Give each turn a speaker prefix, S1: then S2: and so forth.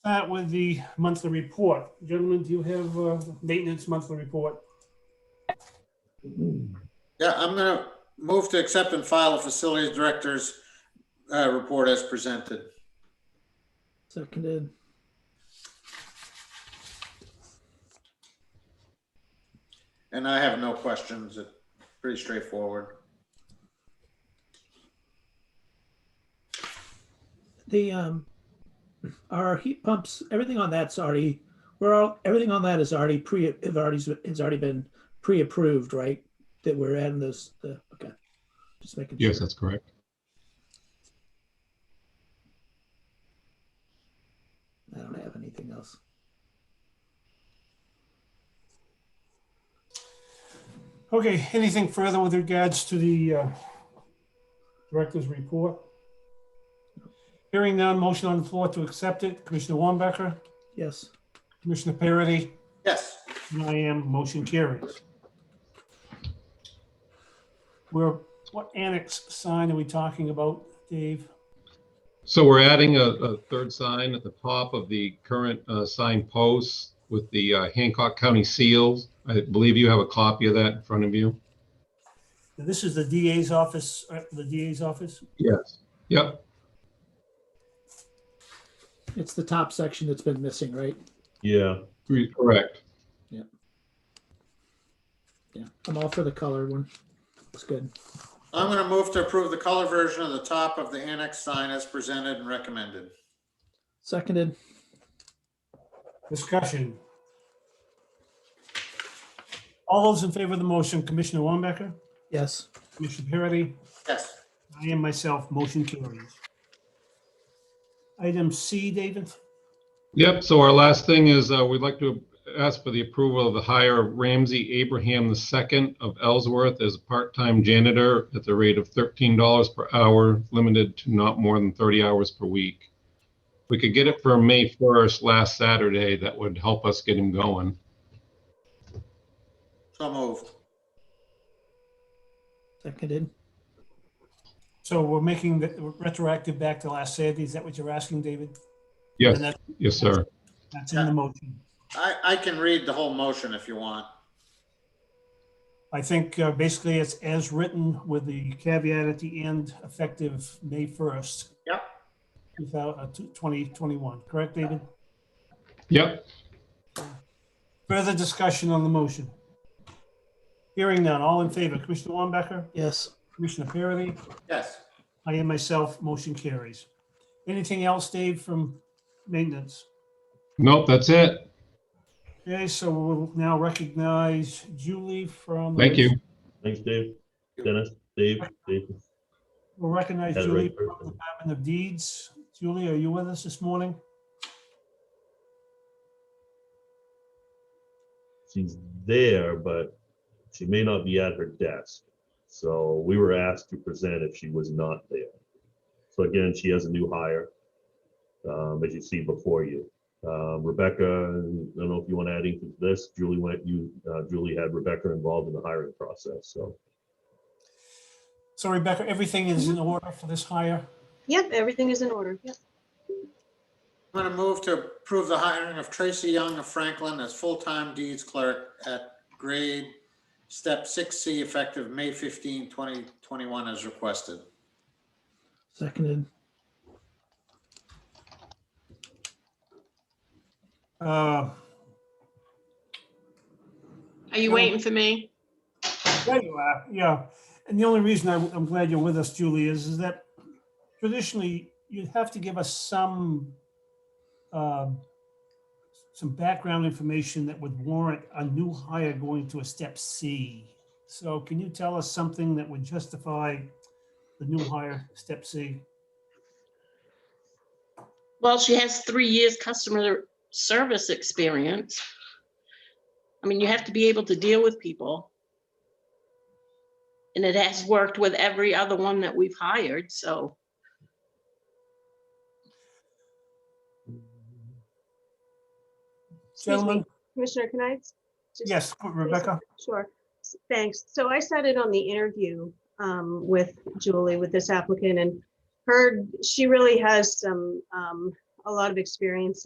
S1: start with the monthly report. Gentlemen, do you have uh, maintenance monthly report?
S2: Yeah, I'm gonna move to accept and file a facilities director's uh, report as presented.
S3: Seconded.
S2: And I have no questions. It's pretty straightforward.
S3: The um, our heat pumps, everything on that's already, we're all, everything on that is already pre, have already, has already been pre-approved, right? That we're adding those, the, okay. Just making.
S4: Yes,
S3: sure.
S4: that's correct.
S3: I don't have anything else.
S1: Okay, anything further with regards to the uh, director's report? Hearing none, motion on the floor to accept it. Commissioner Wambacher,
S3: Yes.
S1: Commissioner Parity,
S2: Yes,
S1: and I am, motion carries. We're, what annex sign are we talking about, Dave?
S4: So we're adding a, a third sign at the top of the current uh, sign posts with the uh, Hancock County seals. I believe you have a copy of that in front of you.
S1: This is the DA's office, uh, the DA's office?
S4: Yes. Yep.
S3: It's the top section that's been missing, right?
S5: Yeah,
S4: re- Correct.
S3: Yeah. I'm all for the colored one. It's good.
S2: I'm gonna move to approve the color version of the top of the annex sign as presented and recommended.
S3: Seconded.
S1: Discussion. All those in favor of the motion, Commissioner Wambacher,
S3: Yes.
S1: Commissioner Parity,
S2: Yes,
S1: I am myself, motion carries. Item C, David,
S4: Yep. So our last thing is uh, we'd like to ask for the approval of the hire of Ramsey Abraham II of Ellsworth as a part-time janitor at the rate of $13 per hour, limited to not more than 30 hours per week. If We could get it for May 1st, last Saturday. That would help us get him going.
S2: so moved.
S3: Seconded.
S1: so we're making the retroactive back to last Saturday, is that what you're asking, David?
S4: Yes,
S1: And that-
S4: yes, sir.
S1: That's in the motion.
S2: I, I can read the whole motion if you want.
S1: I think uh, basically it's as written with the caveat at the end, effective May 1st.
S2: Yep.
S1: uh, 2021, correct, David?
S4: Yep,
S1: Further discussion on the motion? Hearing none, all in favor, Commissioner Wambacher,
S3: Yes.
S1: Commissioner Parity,
S2: Yes,
S1: I am myself, motion carries. Anything else, Dave, from maintenance?
S4: nope, that's it.
S1: Okay, so we'll now recognize Julie from.
S4: Thank you.
S5: thanks, Dave. Dennis, Dave, Dave.
S1: We'll recognize
S5: Had it
S1: Julie
S5: right
S1: from
S5: first time.
S1: Department of Deeds. Julie, are you with us this morning?
S5: She's there, but she may not be at her desk. So we were asked to present if she was not there. So again, she has a new hire, um, as you see before you. Um, Rebecca, I don't know if you want to add anything to this. Julie went, you, uh, Julie had Rebecca involved in the hiring process, so.
S1: So Rebecca, everything is in order for this hire?
S6: Yep, everything is in order. Yep.
S2: I'm gonna move to approve the hiring of Tracy Young of Franklin as full-time deeds clerk at grade step six C effective May 15, 2021, as requested.
S3: Seconded.
S1: Uh,
S7: Are you
S1: No.
S7: waiting for me?
S1: There you are, yeah. And the only reason I- I'm glad you're with us, Julie, is, is that traditionally, you'd have to give us some, um, some background information that would warrant a new hire going to a step C. So can you tell us something that would justify the new hire, step C?
S7: Well, she has three years customer service experience. I mean, you have to be able to deal with people. And it has worked with every other one that we've hired, so
S6: Excuse me,
S1: Gentlemen,
S6: Commissioner, can I? just-
S1: yes, Rebecca?
S6: Sure, S- thanks. So I sat in on the interview um, with Julie, with this applicant, and heard she really has some, um, a lot of experience